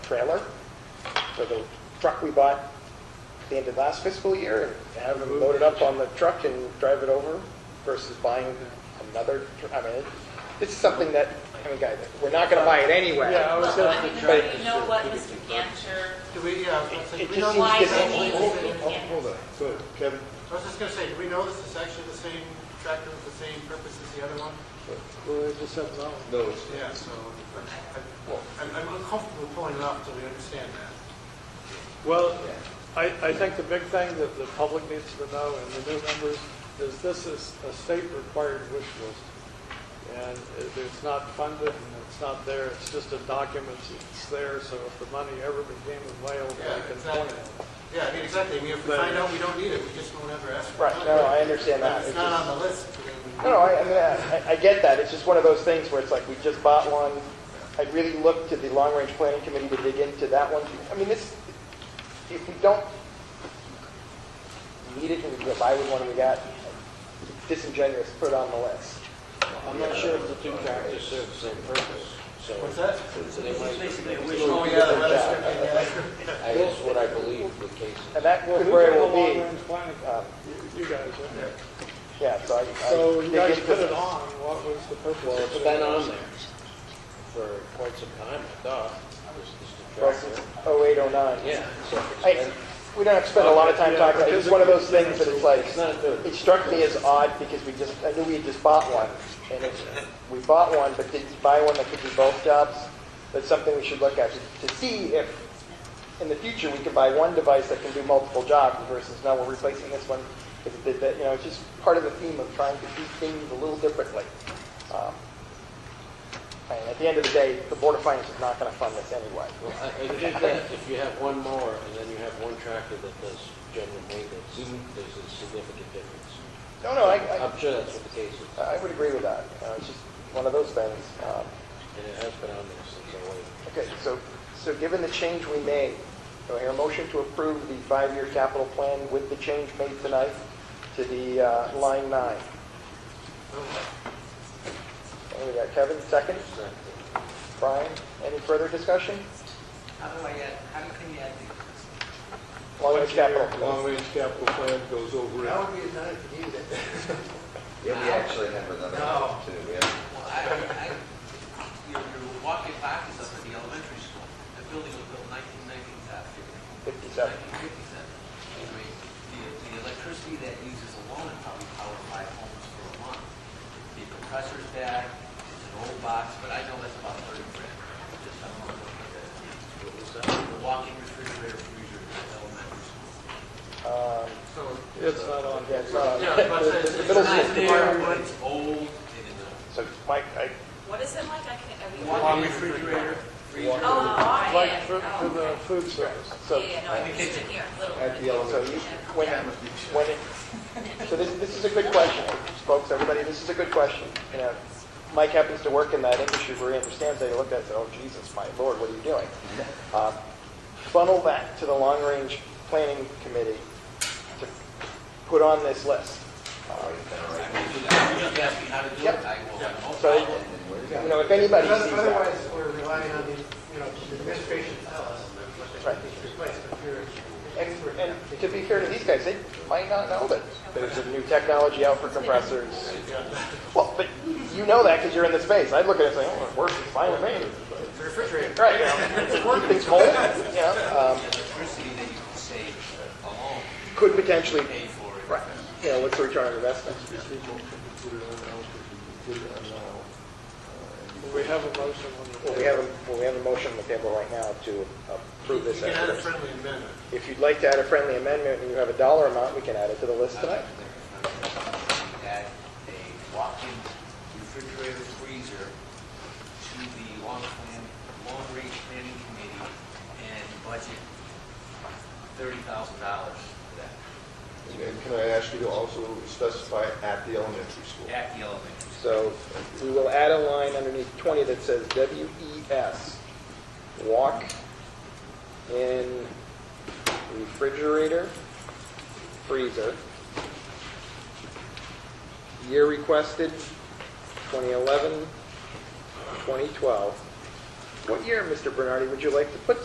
trailer for the truck we bought the end of last fiscal year and have them load it up on the truck and drive it over versus buying another, tr- I mean, it's something that, I mean, guys, we're not going to buy it anyway. Yeah, I was Well, I gonna mean, suggest. how do you know what Mr. Gancher, Do we, yeah, I was gonna say, It- do it we know just this why seems he is to- actually- needs it in Hold hold Canvas? on, so Kevin, I was just gonna say, do we know this is actually the same tractor with the same purpose as the other one? Well, they just have no. no, it's, Yeah, so I'm- I'm, I'm uncomfortable pulling it off till we understand that. Well, I, I think the big thing that the public needs to know and the new members is this is a state-required wish list. And it- it's not funded and it's not there, it's just a document, it's there, so if the money ever became available, Yeah, they can point exactly. it. Yeah, I mean, exactly. I mean, if we But- find out we don't need it, we just won't ever ask for it. Right, no, no, I understand that. It's If It's not just- on the list. then we- No, no, I, I mean, I- I get that, it's just one of those things where it's like, we just bought one, I really look to the long-range planning committee to dig into that one. I mean, this, if we don't need it, and we go buy with one we got, disingenuous, put it on the list. I'm not sure if the two tractors serve the same purpose, so. What's that? They might- Oh, yeah, the weather circuit, yeah, that's I- That's what I believe the case is. And that could Who's very got a well be, long-range planning? um, You- You guys, yeah. yeah, so I- I. So you dig guys into put it this. on, what was the purpose? Well, of it's putting been it on there for quite some time, I thought, this is the Well, oh since tractor. 08, 09. Yeah, so it's I, been- we don't have to spend a lot of time talking, about it. it's just one of those things that it's like, it's not good. It struck me as odd because we just, I knew we had just bought one. And it's, we bought one, but didn't buy one that could do both jobs. That's something we should look at to to see if in the future we can buy one device that can do multiple jobs versus now we're replacing this one. because it did that. You know, it's just part of the theme of trying to do things a little differently. Um, And at the end of the day, the Board of Finance is not going to fund this anyway. Well, I, I think that if you have one mower and then you have one tractor that does general maintenance, Mm-hmm. there's a significant difference. No, no, I, I- I'm sure that's what the case is, I would agree with that. Uh, It's just one of those things. Um, and it has been on there since oh I waited. Okay, so, so given the change we made, do I hear a motion to approve the five-year capital plan with the change made tonight to the uh, line nine? And we got Kevin, second. Brian, any further discussion? How do I add, how can you add these? Long-range capital. Long range capital plan goes over That it. would be a nice to use it. Yeah, we actually have another one No. too. We have Well, I, I, you're, you're walking backwards up at the elementary school. That building was built nineteen ninety-seven. 57. Nineteen fifty-seven. I mean, the, the electricity that uses alone would probably power five homes for a month. The compressor's bad, it's an old box, but I know that's about thirty grand. Just a month of that. The walking refrigerator freezer at the elementary school. Um, So, It's not on yeah, there. it's not- Yeah, but it's- the it's middle It's not school. there, but it's old and it's a So Mike, I, What is it like? I can't, are we? walking refrigerator, freezer. Oh, all Like right. for, for Oh, the food service. so, Yeah, yeah, no, I'm just in here, a little at bit. the so elementary. you, when, when, it- so this, this is a good question, folks, everybody, this is a good question. You know, Mike happens to work in that industry where he understands that, he looked at it and said, oh, Jesus, my Lord, what are you doing? Uh, Funnel that to the long-range planning committee to put on this list. Uh, Just ask me how to do it, I will. I will. So, you know, if anybody Because sees that, Otherwise, we're relying on the, you know, the administration to tell us what they Right. think needs replaced, but you're. an and, expert in and to be fair to these guys, they might not know that there's a new technology out for compressors. that. Well, but you know that because you're in the space. I'd look at it and say, oh, it works, it's fine with me. It's a refrigerator. Right, you know, keep things cold, you know, um, Electricity that you can save alone, could potentially, pay for it. right, you know, what's the return on investment? We have a motion on the Well, we have, a- well, we have a motion on the table right now to approve You this. can add after a this. friendly amendment. If you'd like to add a friendly amendment and you have a dollar amount, we can add it to the list tonight. Add a walk-in refrigerator freezer to the long plan, long-range planning committee and budget thirty thousand dollars for that And can I ask you to also specify at the elementary school? at the elementary. So we will add a line underneath 20 that says WES, walk in refrigerator, freezer. Year requested, 2011, 2012. What year, Mr. Bernardi, would you like to put